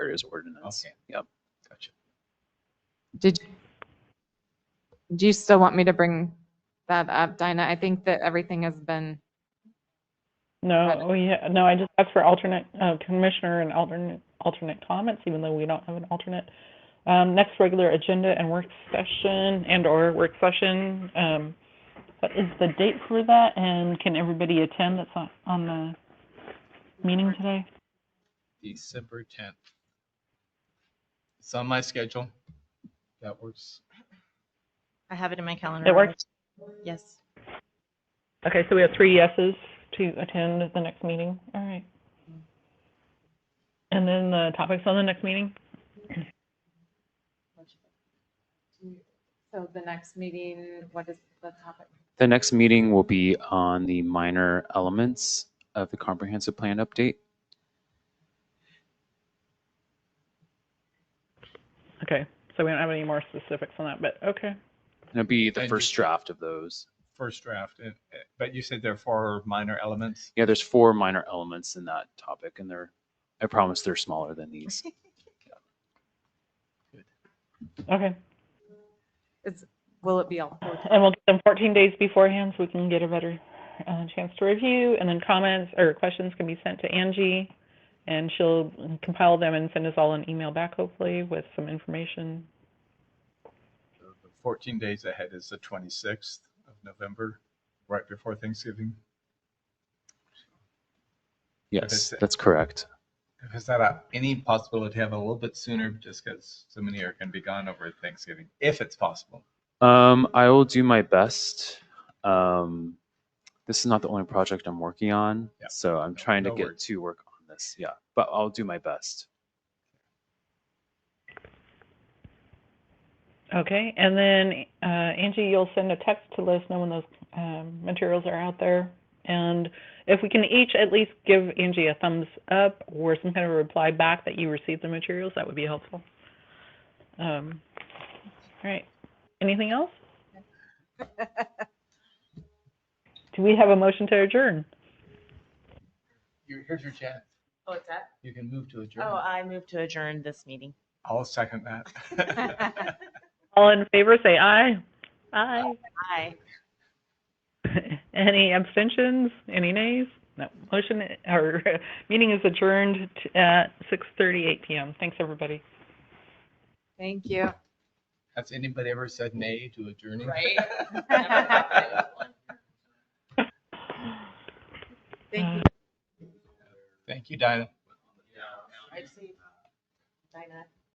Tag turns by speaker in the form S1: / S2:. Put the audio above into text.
S1: else.
S2: Okay, Yep, gotcha.
S3: Did, do you still want me to bring that up, Dinah? I think that everything has been,
S4: No,
S3: Right.
S4: we, no, I just asked for alternate, uh, commissioner and alternate, alternate comments, even though we don't have an alternate. Um, next regular agenda and work session and/or work session, um, what is the date for that? And can everybody attend that's on, on the meeting today?
S2: December tenth. It's on my schedule. That works.
S5: I have it in my calendar.
S4: It works?
S5: Yes.
S4: Okay, so we have three yeses to attend the next meeting. All right. And then the topics on the next meeting?
S3: so the next meeting, what is the topic?
S1: The next meeting will be on the minor elements of the comprehensive plan update.
S4: Okay, so we don't have any more specifics on that, but okay.
S1: And it'll be the
S2: And
S1: first
S2: just-
S1: draft of those.
S2: First draft, and- but you said there are four minor elements.
S1: Yeah, there's four minor elements in that topic, and they're, I promise they're smaller than these.
S4: Okay.
S3: Will it be all? four?
S4: And we'll get them 14 days beforehand so we can get a better uh, chance to review. And then comments or questions can be sent to Angie, and she'll compile them and send us all an email back, hopefully, with some information.
S2: So the Fourteen days ahead is the twenty-sixth of November, right before Thanksgiving.
S1: Yes, that's correct.
S2: Is that a- any possibility to have a little bit sooner, just because so many are going to be gone over Thanksgiving, if it's possible?
S1: Um, I will do my best. Um, this is not the only project I'm working on,
S2: Yeah.
S1: so I'm trying to
S2: no
S1: get
S2: worries.
S1: to work on this. Yeah, but I'll do my best.
S4: Okay. And then, uh, Angie, you'll send a text to let us know when those um, materials are out there. And if we can each at least give Angie a thumbs up or some kind of a reply back that you received the materials, that would be helpful. Um, all right. Anything else? Do we have a motion to adjourn?
S2: Here- Here's your chance.
S5: Oh, it's that?
S2: You can move to adjourn.
S5: Oh,
S3: uh
S5: I moved to adjourn this meeting.
S2: I'll second that.
S4: All in favor, say aye. Aye.
S5: Hi.
S4: Any abstentions? Any nays? No. Motion or meeting is adjourned t- at 6:38 p.m. Thanks, everybody.
S3: Thank you.
S2: Has anybody ever said nay to adjourning?
S5: Thank you.
S2: Thank you, Dinah.
S5: I see. Dinah.